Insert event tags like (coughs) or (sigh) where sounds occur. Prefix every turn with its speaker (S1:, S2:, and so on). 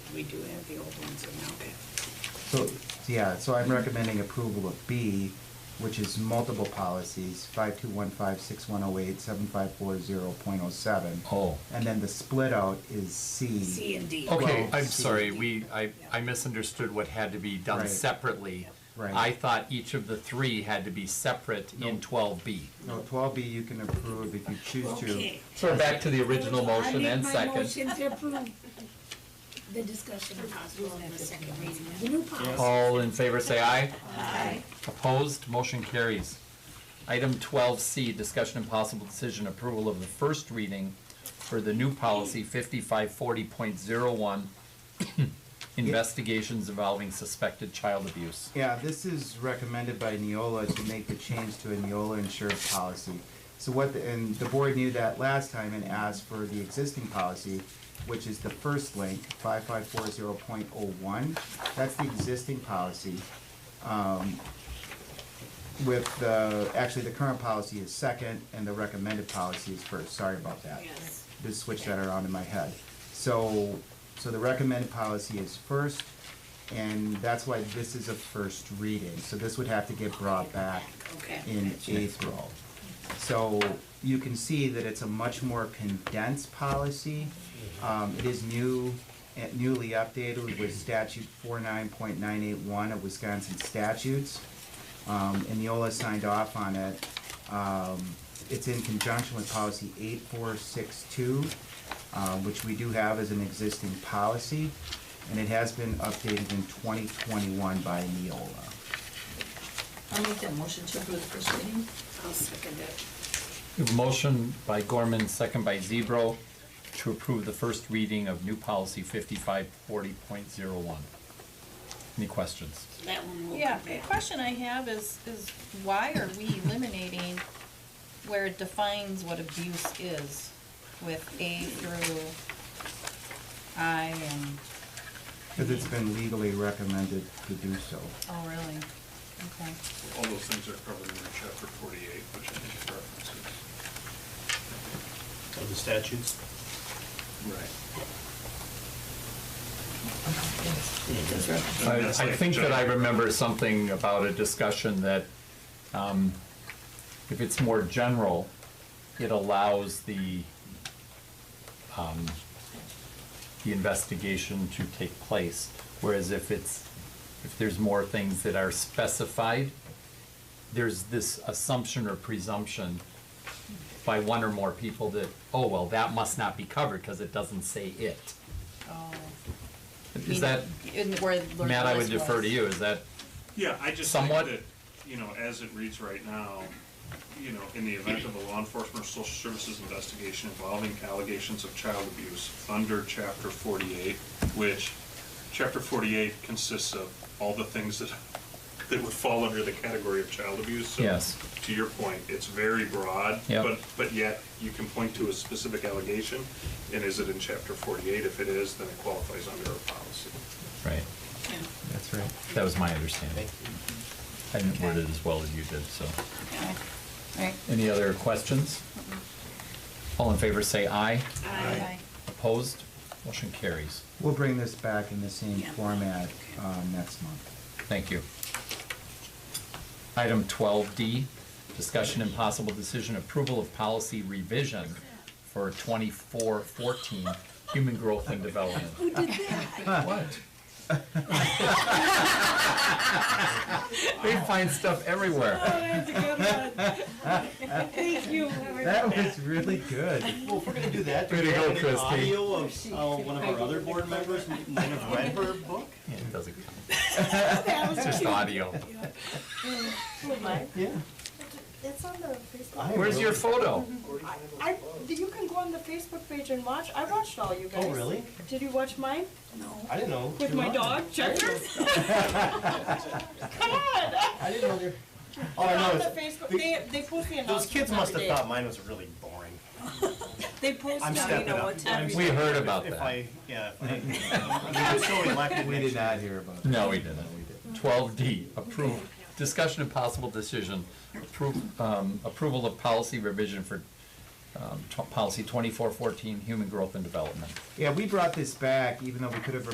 S1: we do have the old ones and now.
S2: So, yeah, so I'm recommending approval of B, which is multiple policies, 5215, 6108, 7540.07.
S3: Oh.
S2: And then the split out is C.
S1: C and D.
S3: Okay,
S2: Well,
S3: I'm
S2: C.
S3: sorry, we, I,
S1: Yeah.
S3: I misunderstood what had to be done
S2: Right.
S3: separately.
S2: Right.
S3: I thought each of the three had to be separate in twelve B.
S2: No, 12B you can approve if you choose to.
S1: Okay.
S3: So we're back to the original
S1: I
S3: motion
S1: make
S3: and
S1: my
S3: second.
S1: motion to approve the discussion of possible and the second reading of the new policy.
S3: All in favor, say aye.
S1: Aye.
S3: Opposed, motion carries. Item twelve C, discussion and possible decision approval of the first reading for the new policy fifty-five forty point zero one, (coughs) investigations involving suspected child abuse.
S2: Yeah, this is recommended by Neola to make the change to a Neola insurance policy. So what, the- and the board knew that last time and asked for the existing policy, which is the first link, 5540.01. That's the existing policy. Um, With the, actually, the current policy is second and the recommended policy is first. Sorry about that
S1: Yes.
S2: just switch that around in my head. So, so the recommended policy is first, and that's why this is a first reading. So this would have to get brought back
S1: Okay.
S2: in April. So you can see that it's a much more condensed policy. Um, it is new, eh, newly updated with statute four nine point nine eight one of Wisconsin statutes. Um, and Neola signed off on it. Um, it's in conjunction with policy eight four six two, um, which we do have as an existing policy. And it has been updated in twenty twenty-one by Neola.
S4: I'll make that motion to approve the first reading.
S1: I'll second it.
S3: We have a Motion by Gorman, second by Zebro, to approve the first reading of new policy fifty-five forty point zero one. Any questions?
S1: That one will
S5: Yeah,
S1: come
S5: the
S1: back.
S5: question I have is, is why are we eliminating where it defines what abuse is with A through I and,
S2: Because it's been legally recommended to do so.
S5: oh, really? Okay.
S6: All those things are covered in chapter forty-eight, which I think it references.
S7: of the statutes.
S6: Right.
S3: I, I think that I remember something about a discussion that, um, if it's more general, it allows the, um, the investigation to take place. Whereas if it's, if there's more things that are specified, there's this assumption or presumption by one or more people that, oh, well, that must not be covered because it doesn't say it.
S5: Oh.
S3: Is that,
S5: In where the
S3: Matt, I would
S5: list
S3: defer to
S5: was.
S3: you, is that?
S6: Yeah, I just think
S3: Somewhat.
S6: that, you know, as it reads right now, you know, in the event of a law enforcement or social services investigation involving allegations of child abuse under chapter forty-eight, which, chapter forty-eight consists of all the things that, that would fall under the category of child abuse. So
S3: Yes.
S6: To your point, it's very broad.
S3: Yep.
S6: But, but yet, you can point to a specific allegation, and is it in chapter forty-eight? If it is, then it qualifies under our policy.
S3: Right,
S1: Yeah.
S2: That's right.
S3: that was my understanding. I didn't word it as well as you did, so.
S5: Okay. All right.
S3: Any other questions? All in favor, say aye.
S5: Aye.
S3: Opposed? Motion carries.
S2: We'll bring this back in the same
S1: Yeah.
S2: format uh, next month.
S3: Thank you. Item 12D, discussion and possible decision approval of policy revision for 2414, human growth and development.
S1: Who did that?
S3: (laughs) What? They find stuff everywhere.
S1: that's a good one. Thank you.
S2: That was really good.
S7: Well, if we're gonna do that, do
S3: Way
S7: we
S3: to
S7: have
S3: go,
S7: an
S3: Christie.
S7: audio of, uh, one of our other board members might have read her book?
S3: Yeah, It doesn't count.
S7: (laughs)
S1: That was
S3: It's just audio.
S7: Yeah.
S8: It's on the Facebook.
S7: I
S3: Where's your photo?
S8: I, I, you can go on the Facebook page and watch. I watched all you guys.
S7: Oh, really?
S8: Did you watch mine
S7: I didn't know.
S8: with
S7: you
S8: my
S7: were-
S8: dog Checkers? Come on!
S7: (laughs) I didn't know there. All Oh, I know
S8: On the
S7: is,
S8: Facebook,
S7: the-
S8: they they post the announcements.
S7: those kids must have
S8: every
S7: thought
S8: day.
S7: mine was really boring.
S8: They post
S7: I'm
S8: now, you
S7: stepping
S8: know
S7: up.
S8: what
S7: I'm
S8: time.
S3: We heard about
S7: If
S3: that.
S7: I, yeah, if I, (laughs) I'm so elected
S2: We
S7: next
S2: did
S7: year.
S2: not hear about that.
S3: No, we didn't. Twelve D, approve, discussion and possible decision, approve, um, approval of policy revision for, um, tw- policy twenty-four fourteen, human growth and development.
S2: Yeah, we brought this back even though we could have